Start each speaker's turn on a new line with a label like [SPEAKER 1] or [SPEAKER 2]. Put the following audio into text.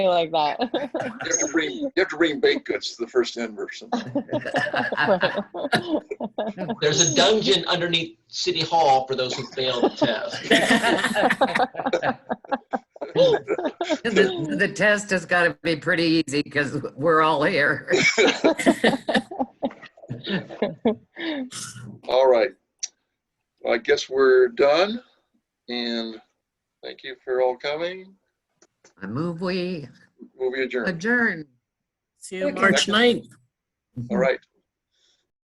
[SPEAKER 1] like that.
[SPEAKER 2] You have to bring, you have to bring baked goods to the first in person.
[SPEAKER 3] There's a dungeon underneath City Hall for those who fail the test.
[SPEAKER 4] The the test has got to be pretty easy because we're all here.
[SPEAKER 2] All right. I guess we're done. And thank you for all coming.
[SPEAKER 4] I move we
[SPEAKER 2] Movie adjourned.
[SPEAKER 4] adjourn.
[SPEAKER 5] See you
[SPEAKER 2] Okay.
[SPEAKER 5] March 9th.
[SPEAKER 2] All right.